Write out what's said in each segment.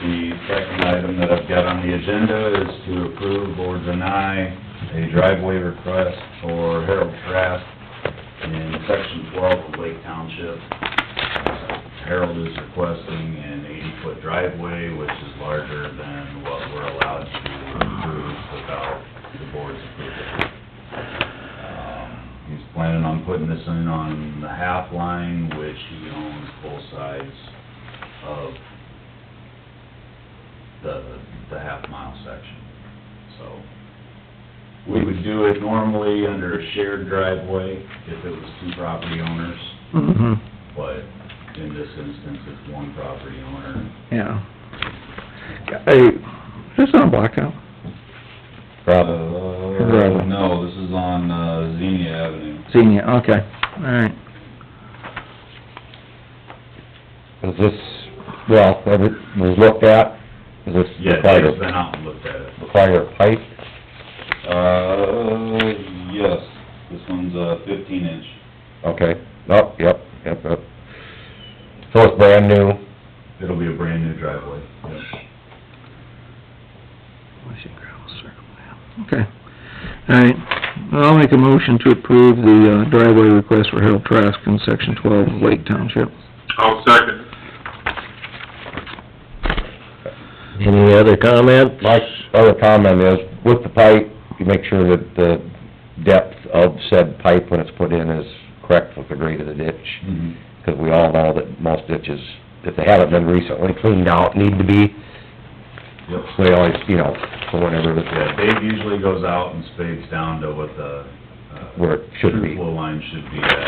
second item that I've got on the agenda is to approve or deny a driveway request for Harold Trask in section twelve of Lake Township. Uh, Harold is requesting an eighty-foot driveway, which is larger than what we're allowed to approve without the board's approval. Um, He's planning on putting this in on the half line, which he owns both sides of the, the half mile section, so. We would do it normally under a shared driveway if it was two property owners, Mhm. but in this instance, it's one property owner. Yeah. Hey, is this on Blacktop? Probably, no, this is on, uh, Xenia Avenue. Senior, okay, all right. Is this, well, that it was looked at, is this Yeah, the Dave's been fire, out and looked at it. the fire pipe? Uh, yes, this one's a fifteen inch. Okay, oh, yep, yep, yep. So it's brand new, It'll be a brand new driveway. Yep. Okay, all right. I'll make a motion to approve the uh, driveway request for Harold Trask in section twelve of Lake Township. I'll second. Any other comment? My other comment is, with the pipe, you make sure that the depth of said pipe when it's put in is correct with the grade of the ditch. Mm-hmm. Because we all know that most ditches, if they haven't been recently cleaned out, need to be, Yep. so they always, you know, for whenever, Yeah, the- Dave usually goes out and spades down to what the, uh, where it should true be. flow line should be at.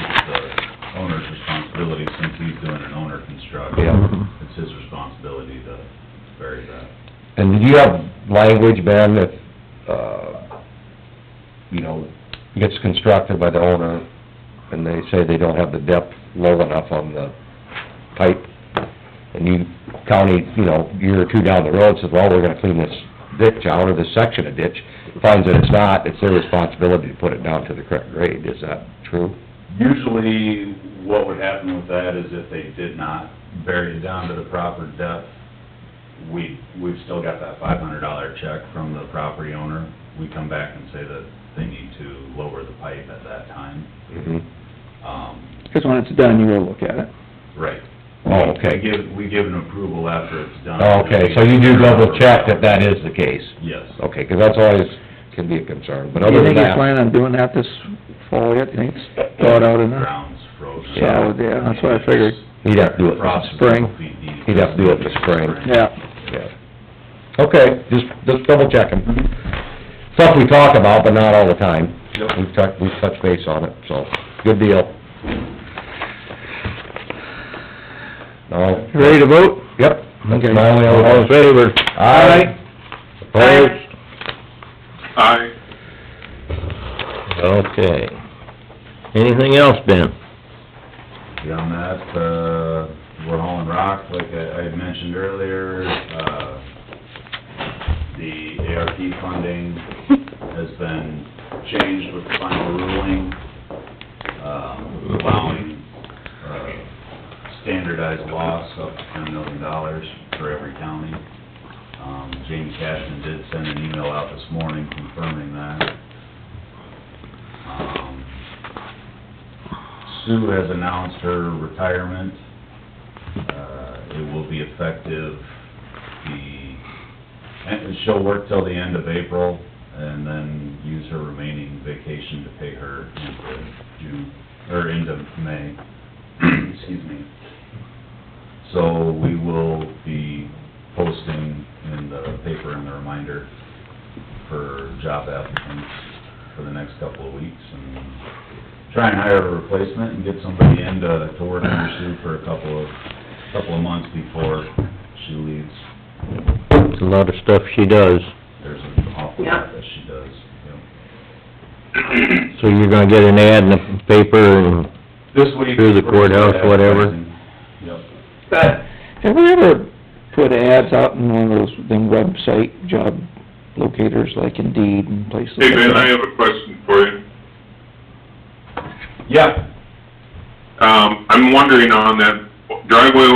It's the owner's responsibility, since he's doing an owner construct. Yeah. It's his responsibility to bury that. And do you have language, Ben, if, uh, you know, gets constructed by the owner, and they say they don't have the depth low enough on the pipe, and you, county, you know, year or two down the road says, well, we're gonna clean this ditch out, or this section of ditch, finds that it's not, it's their responsibility to put it down to the correct grade, is that true? Usually, what would happen with that is if they did not bury it down to the proper depth, we, we've still got that five hundred dollar check from the property owner. We come back and say that they need to lower the pipe at that time. Mm-hmm. Um, Because when it's done, you will look at it. right. Oh, We okay. Oh, give, we give an approval after it's done. Okay, so you do double check that Oh, that is the case? Yes. Okay, 'cause that's always, can be a concern, but Do other you than think he's that... planning on doing that this fall yet? You think it's thawed out enough? Ground's frozen. Yeah, yeah, that's what I figured. He'd have to do it Across this spring. feet deep. He'd have to do it this spring. Yeah, Yeah. Okay, just, just double checking. Stuff we talk about, but not all the time. Yep. We've touched, we've touched base on it, so, good deal. No? You ready to vote? Yep, Okay. that's my only other... All in favor? Aye. Opposed? Aye. Okay. Anything else, Ben? Beyond that, uh, we're hauling rock, like I, I had mentioned earlier, uh, the ARP funding has been changed with the final ruling, um, allowing, uh, standardized loss up to ten million dollars for every county. Um, Jamie Cashman did send an email out this morning confirming that. Um, Sue has announced her retirement. Uh, it will be effective the, and she'll work till the end of April and then use her remaining vacation to pay her into June, or into May, excuse me. So we will be posting in the paper and the reminder for job applicants for the next couple of weeks and try and hire a replacement and get somebody in to, to work under Sue for a couple of, couple of months before she leaves. A lot of stuff she does, There's an awful lot that she does, you know. so you're gonna get an ad in the paper and This week. Through the courthouse, whatever. Yep. Have we ever put ads out in one of those, them website job locators like Indeed and places like Hey, Ben, I that? have a question for you. Yeah, Um, I'm wondering on that driveway